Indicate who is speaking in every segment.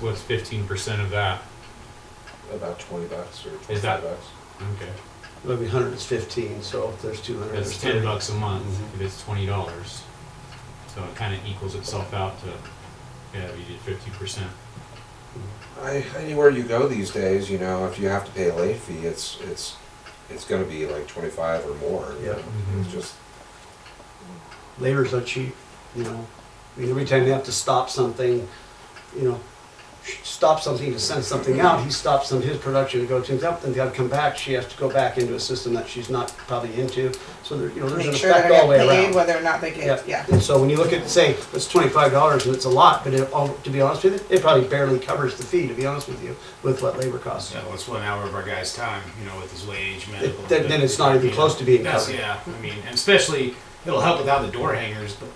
Speaker 1: What's fifteen percent of that?
Speaker 2: About twenty bucks or
Speaker 1: Is
Speaker 2: twenty-five
Speaker 1: that-
Speaker 2: bucks.
Speaker 1: Okay,
Speaker 3: It'll be hundred is fifteen, so if there's two hundred,
Speaker 1: that's
Speaker 3: there's
Speaker 1: ten
Speaker 3: thirty.
Speaker 1: bucks a month,
Speaker 3: Mhm.
Speaker 4: Mm-hmm.
Speaker 1: if it's twenty dollars. So it kinda equals itself out to, yeah, you did fifty percent.
Speaker 2: I, anywhere you go these days, you know, if you have to pay a late fee, it's, it's, it's gonna be like twenty-five or more. you
Speaker 3: Yeah.
Speaker 2: know?
Speaker 1: Mhm.
Speaker 2: It's just,
Speaker 3: Labor's not cheap, you know. I mean, every time you have to stop something, you know, stop something to send something out, he stops some of his production to go to himself, then gotta come back, she has to go back into a system that she's not probably into. So there, you know, there's an
Speaker 5: Make sure they're
Speaker 3: effect all the
Speaker 5: getting
Speaker 3: way
Speaker 5: paid,
Speaker 3: around.
Speaker 5: whether or not they
Speaker 3: Yeah,
Speaker 5: get, yeah.
Speaker 3: and so when you look at, say, it's twenty-five dollars and it's a lot, but it, all- to be honest with you, it probably barely covers the fee, to be honest with you, with what labor costs.
Speaker 4: Yeah, well, it's one hour of our guy's time, you know, with his wage, medical.
Speaker 3: then- then it's not even
Speaker 4: you know,
Speaker 3: close to being
Speaker 4: that's-
Speaker 3: covered.
Speaker 4: Yeah, I mean, and especially, it'll help without the door hangers, but,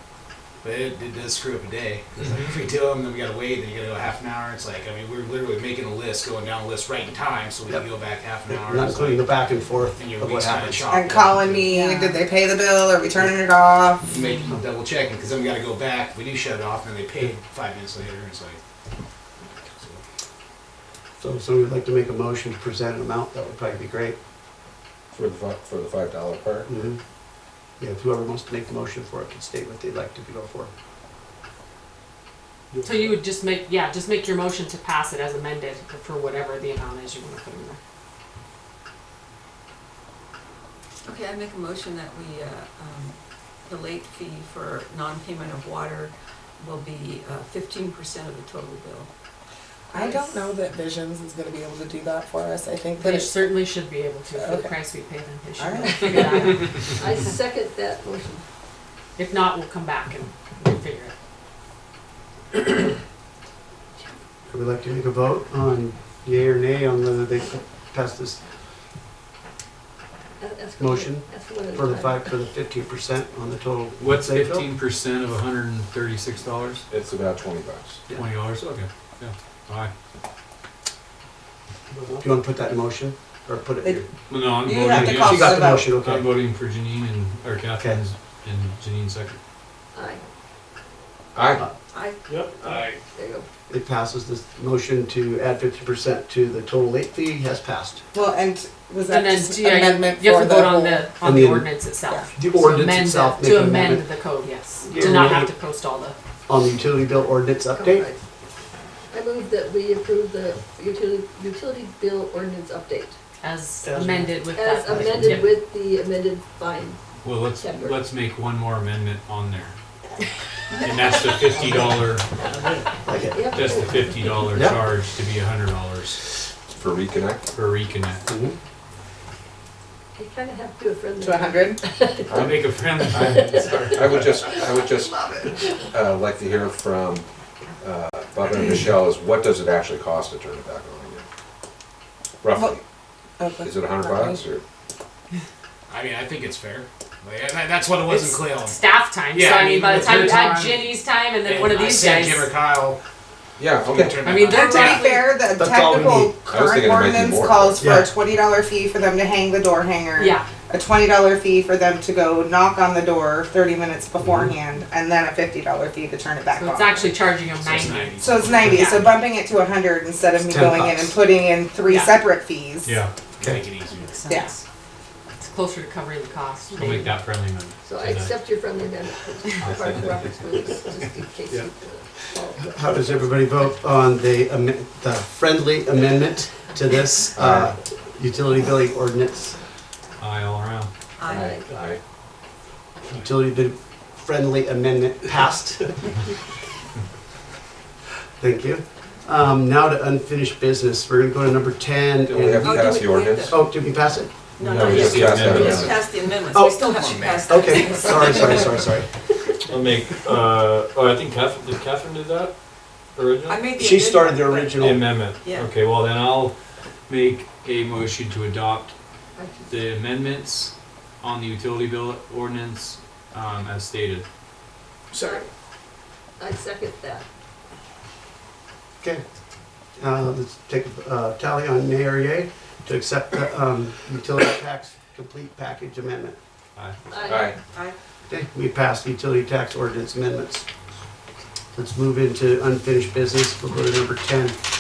Speaker 4: but it, it does screw up a day. 'Cause,
Speaker 3: Mm-hmm.
Speaker 4: like, if we do them, then we gotta wait, then you gotta go half an hour, it's like, I mean, we're literally making a list, going down the list right in time, so we can
Speaker 3: Yep.
Speaker 4: go back half an hour.
Speaker 3: Not
Speaker 4: it's
Speaker 3: including the
Speaker 4: like-
Speaker 3: back and forth
Speaker 4: And your
Speaker 3: of what
Speaker 4: week's kinda
Speaker 3: happens.
Speaker 4: chopped. up.
Speaker 5: And calling me,
Speaker 6: Yeah.
Speaker 5: did they pay the bill? Are we turning it off?
Speaker 4: Making, double checking, cause then we gotta go back, we do shut it off, and then they pay five minutes later, and it's like. so.
Speaker 3: So if somebody would like to make a motion to present an amount, that would probably be great.
Speaker 2: for the, fi- for the five dollar part,
Speaker 3: Mhm. Yeah, if whoever wants to make the motion for it can state what they'd like to go for.
Speaker 6: So you would just make, yeah, just make your motion to pass it as amended for whatever the amount is you wanna put in there.
Speaker 7: Okay, I make a motion that we, uh, um, the late fee for non-payment of water will be uh, fifteen percent of the total bill.
Speaker 8: I don't know that Visions is going to be able to do that for us. I think that
Speaker 6: They
Speaker 8: it's,
Speaker 6: certainly should be able to, for the
Speaker 8: Okay.
Speaker 6: price we pay them, they should
Speaker 5: All
Speaker 6: be able
Speaker 5: right.
Speaker 6: to figure that out.
Speaker 7: I second that motion.
Speaker 6: If not, we'll come back and we'll figure it.
Speaker 3: Would we like to make a vote on yea or nay on whether they pass this Motion for the five, for the fifteen percent on the total?
Speaker 1: What's
Speaker 3: Say, Phil?
Speaker 1: fifteen percent of hundred and thirty-six dollars?
Speaker 2: it's about twenty bucks.
Speaker 3: Yeah.
Speaker 1: Twenty dollars, okay, yeah, alright.
Speaker 3: Do you want to put that in motion or put it
Speaker 5: They-
Speaker 3: here?
Speaker 1: Well, no, I'm
Speaker 5: You have to
Speaker 1: voting
Speaker 5: call
Speaker 3: She
Speaker 1: against,
Speaker 3: got
Speaker 5: for
Speaker 3: the
Speaker 5: the vote.
Speaker 3: motion,
Speaker 1: I'm
Speaker 3: okay.
Speaker 1: voting for Janine and, or Catherine's and Janine's second.
Speaker 7: Aye,
Speaker 2: I,
Speaker 7: aye,
Speaker 1: Yep. Aye.
Speaker 7: there you go.
Speaker 3: Uh, It passes, this motion to add fifty percent to the total late fee has passed.
Speaker 5: Well, and was that
Speaker 6: And then,
Speaker 5: just
Speaker 6: yeah, you-
Speaker 5: amendment
Speaker 6: you have
Speaker 5: for
Speaker 6: to
Speaker 5: the
Speaker 6: vote
Speaker 5: whole?
Speaker 6: on the,
Speaker 3: And
Speaker 6: on the
Speaker 3: the-
Speaker 6: ordinance itself.
Speaker 3: The
Speaker 6: To
Speaker 3: ordinance
Speaker 6: amend
Speaker 3: itself,
Speaker 6: the-
Speaker 3: make
Speaker 6: To
Speaker 3: an
Speaker 6: amend
Speaker 3: amendment
Speaker 6: the code, yes,
Speaker 3: Yeah,
Speaker 6: to not
Speaker 3: we-
Speaker 6: have to post all the,
Speaker 3: on the utility bill ordinance update.
Speaker 7: I move that we approve the utility, utility bill ordinance update
Speaker 6: as
Speaker 3: As-
Speaker 6: amended with
Speaker 7: as
Speaker 6: that.
Speaker 7: amended
Speaker 6: Yep.
Speaker 7: with the amended fine.
Speaker 1: Well, let's,
Speaker 7: September.
Speaker 1: let's make one more amendment on there. And that's the fifty dollar,
Speaker 3: Like it.
Speaker 7: Yep.
Speaker 1: just the fifty dollar
Speaker 3: Yeah.
Speaker 1: charge to be a hundred dollars
Speaker 2: for reconnect,
Speaker 1: for reconnect.
Speaker 3: Mhm.
Speaker 7: You kind of have to do a friendly.
Speaker 5: To a hundred?
Speaker 1: I make a friendly,
Speaker 2: I would just, I would just, uh, like to hear from, uh, Bob and Michelle is what does it actually cost to turn it back on again? Roughly, is it a hundred bucks or?
Speaker 4: I mean, I think it's fair, like, and that- that's what it was in
Speaker 6: It's
Speaker 4: Clayton.
Speaker 6: Staff time, so
Speaker 4: Yeah, I
Speaker 6: I mean,
Speaker 4: mean,
Speaker 6: by the
Speaker 4: with
Speaker 6: time
Speaker 4: her
Speaker 6: you add
Speaker 4: time-
Speaker 6: Ginny's time and then
Speaker 4: And
Speaker 6: one of
Speaker 4: I
Speaker 6: these
Speaker 4: sent
Speaker 6: guys.
Speaker 4: Jim or Kyle,
Speaker 2: Yeah,
Speaker 4: we can
Speaker 2: okay.
Speaker 4: turn
Speaker 6: I
Speaker 4: it
Speaker 6: mean,
Speaker 4: on.
Speaker 6: they're
Speaker 5: And to be
Speaker 6: roughly-
Speaker 5: fair, the
Speaker 3: That's all we
Speaker 5: technical
Speaker 3: need.
Speaker 2: I was
Speaker 5: current
Speaker 2: thinking it might be
Speaker 5: ordinance
Speaker 2: more.
Speaker 5: calls for
Speaker 3: Yeah.
Speaker 5: a twenty dollar fee for them to hang the door hanger.
Speaker 6: Yeah,
Speaker 5: A twenty dollar fee for them to go knock on the door thirty minutes beforehand, and then a fifty dollar fee to turn it back
Speaker 6: so it's
Speaker 5: on.
Speaker 6: actually charging them
Speaker 4: So it's
Speaker 6: ninety.
Speaker 4: 90.
Speaker 5: So it's ninety, so bumping it to a hundred instead of me
Speaker 3: It's 10
Speaker 5: going in and
Speaker 3: bucks.
Speaker 5: putting in three
Speaker 6: Yeah.
Speaker 5: separate fees.
Speaker 1: yeah,
Speaker 4: Make it easier.
Speaker 5: Yeah.
Speaker 6: It's closer to covering the cost.
Speaker 1: I'll make that friendly amendment.
Speaker 7: So I accept your friendly amendment, as part of Robert's rules, just in case you.
Speaker 1: Yeah.
Speaker 7: uh, follow up.
Speaker 3: How does everybody vote on the, amen- the friendly amendment to this uh, utility billing ordinance?
Speaker 1: Aye all around.
Speaker 7: Aye.
Speaker 2: Aye.
Speaker 3: Utility bill friendly amendment passed. Thank you. Um, Now to unfinished business, we're gonna go to number 10.
Speaker 2: Don't we have
Speaker 3: and-
Speaker 2: to
Speaker 7: Oh,
Speaker 2: pass
Speaker 7: do
Speaker 2: the
Speaker 7: we- we have
Speaker 2: ordinance?
Speaker 7: to-
Speaker 3: Oh, did we pass it?
Speaker 7: No,
Speaker 2: No,
Speaker 7: not
Speaker 2: we
Speaker 7: yet.
Speaker 2: just
Speaker 7: We
Speaker 2: passed that
Speaker 7: just
Speaker 2: amendment.
Speaker 7: passed the amendments,
Speaker 3: Oh.
Speaker 7: we still have to pass that.
Speaker 3: Okay, sorry, sorry, sorry, sorry.
Speaker 9: I'll make, uh, oh, I think Catherine, did Catherine do that
Speaker 7: I
Speaker 9: originally?
Speaker 7: made the.
Speaker 3: She started the
Speaker 7: amendment,
Speaker 9: The
Speaker 3: original.
Speaker 9: amendment?
Speaker 7: Yeah.
Speaker 9: Okay, well then I'll make a motion to adopt
Speaker 7: but I can-
Speaker 9: the amendments on the utility bill ordinance, um, as stated.
Speaker 7: I second that.
Speaker 3: Okay. Uh, Let's take a uh, tally on nay or yay to accept the um, utility tax complete package amendment.
Speaker 9: Aye.
Speaker 2: Aye.
Speaker 7: Aye.
Speaker 3: Okay, we passed utility tax ordinance amendments. Let's move into unfinished business. We'll go to number 10.